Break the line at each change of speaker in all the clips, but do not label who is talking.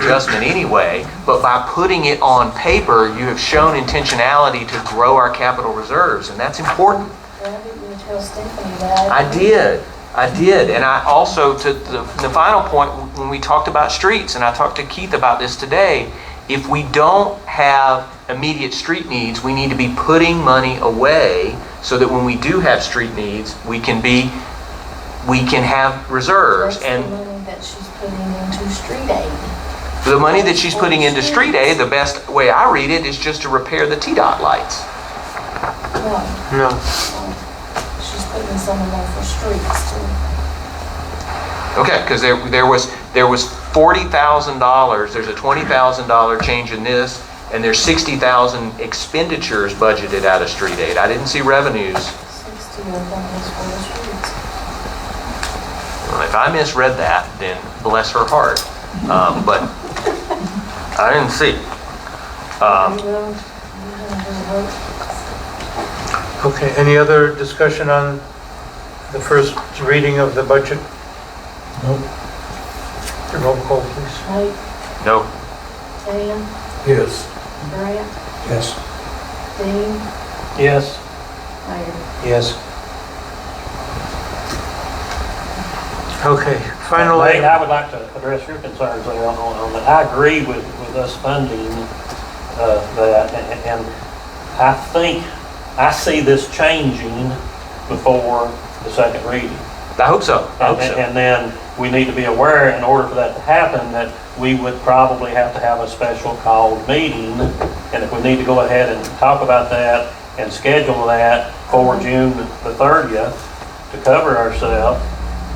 adjustment anyway, but by putting it on paper, you have shown intentionality to grow our capital reserves, and that's important.
Why didn't you tell Stephanie that?
I did, I did, and I also, to the, the final point, when we talked about streets, and I talked to Keith about this today, if we don't have immediate street needs, we need to be putting money away so that when we do have street needs, we can be, we can have reserves.
That's the
And
money that she's putting into street aid.
the money that she's putting into street aid, the best way I read it is just to repair the T-dot lights.
No,
No.
Um, she's putting some of that for streets too.
Okay, because there, there was, there was forty thousand dollars, there's a twenty thousand dollar change in this, and there's sixty thousand expenditures budgeted out of street aid. I didn't see revenues.
Sixty of them is for the streets.
If I misread that, then bless her heart. Um, but I didn't see. Um,
You know, you can do work.
Okay, any other discussion on the first reading of the budget? No. Roll call, please.
Nate,
no,
Dan,
Yes.
Brad,
Yes.
Dean,
Yes.
Mayor.
Yes. Okay, final
Nate,
item.
I would like to address your concerns there on, on that. I agree with, with us funding, uh, that, and- and I think, I see this changing before the second reading.
I hope so, I
And
hope so.
and then we need to be aware, in order for that to happen, that we would probably have to have a special called meeting. And if we need to go ahead and talk about that and schedule that for
Mm-hmm.
June the 30th to cover ourselves,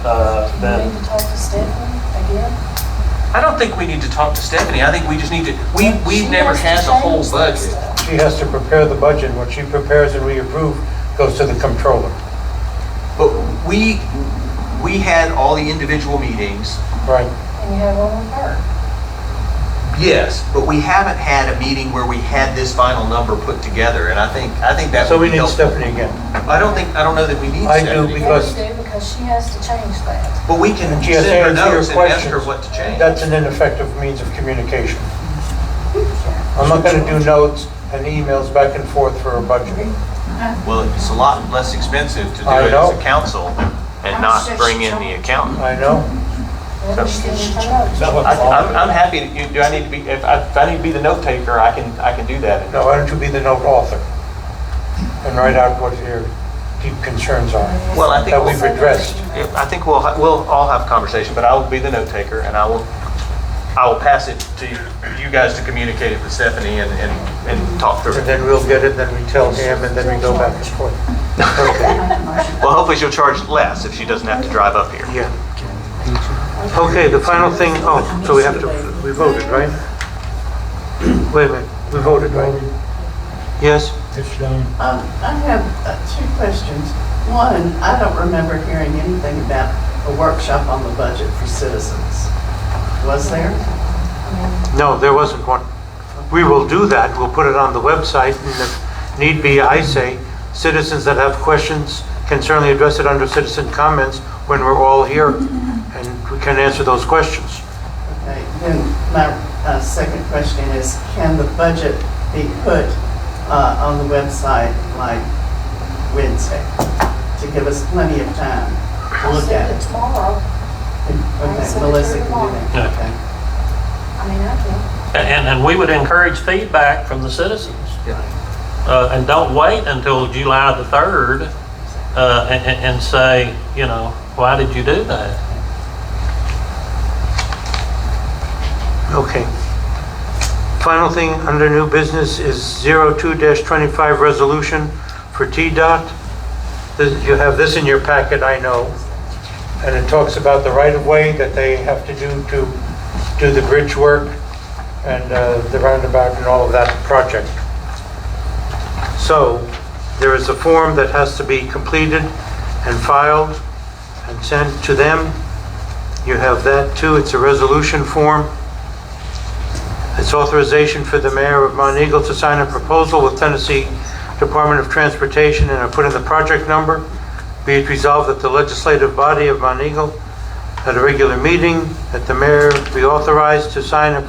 uh,
You
then
need to talk to Stephanie again.
I don't think we need to talk to Stephanie. I think we just need to, we,
She
we've never had
to
the whole
change that
budget.
stuff.
She has to prepare the budget. What she prepares and we approve goes to the comptroller.
But we, we had all the individual meetings.
Right.
And you have one with her.
Yes, but we haven't had a meeting where we had this final number put together, and I think, I think that
So
would
we
be
need
helpful.
Stephanie again.
I don't think, I don't know that we need
I do
Stephanie,
because-
Yeah, we do, because she has to change that.
but we can
She has
send her
to answer your
notes and ask her
questions.
what to change.
That's an ineffective means of communication.
Yeah.
I'm not going to do notes and emails back and forth for a budget.
Well, it's a lot less expensive to do
I
it as
know.
a council and not bring in the accountant.
I know.
Then she's gonna turn up.
I- I'm, I'm happy, to- you- do I need to be, if I, if I need to be the note taker, I can, I can do that.
Now, why don't you be the note author and write out what your deep concerns are?
Well, I think
That
we've
we've addressed.
Yeah, I think we'll, ha- we'll all have a conversation, but I will be the note taker and I will, I will pass it to you guys to communicate it with Stephanie and, and, and talk through
And
it.
then we'll get it, then we tell him, and then we go back and forth. Okay,
Well, hopefully she'll charge less if she doesn't have to drive up here.
yeah. Okay, the final thing, oh, so we have to, we voted, right? Wait a minute, we voted, right? Yes?
It's done.
Um, I have uh, two questions. One, I don't remember hearing anything about a workshop on the budget for citizens. Was there?
No, there wasn't one. We will do that, we'll put it on the website, and if need be, I say, citizens that have questions can certainly address it under citizen comments when we're all here, and we can answer those questions.
Okay, then my uh, second question is, can the budget be put uh, on the website like Wednesday to give us plenty of time to
I'll
look
send
at
it
it?
tomorrow.
Okay,
send it
Melissa
to
can
tomorrow.
do that.
Yeah.
Okay.
I mean, I can.
And, and we would encourage feedback from the citizens.
Yeah.
Uh, and don't wait until July the 3rd, uh, and, and- and say, you know, why did you do that?
Okay. Final thing under new business is 02-25 resolution for TDOT. This- You have this in your packet, I know, and it talks about the right-of-way that they have to do to do the bridge work and uh, the roundabout and all of that project. So there is a form that has to be completed and filed and sent to them. You have that too, it's a resolution form. It's authorization for the mayor of Mount Eagle to sign a proposal with Tennessee Department of Transportation, and I put in the project number. Be it resolved that the legislative body of Mount Eagle, at a regular meeting, that the mayor be authorized to sign a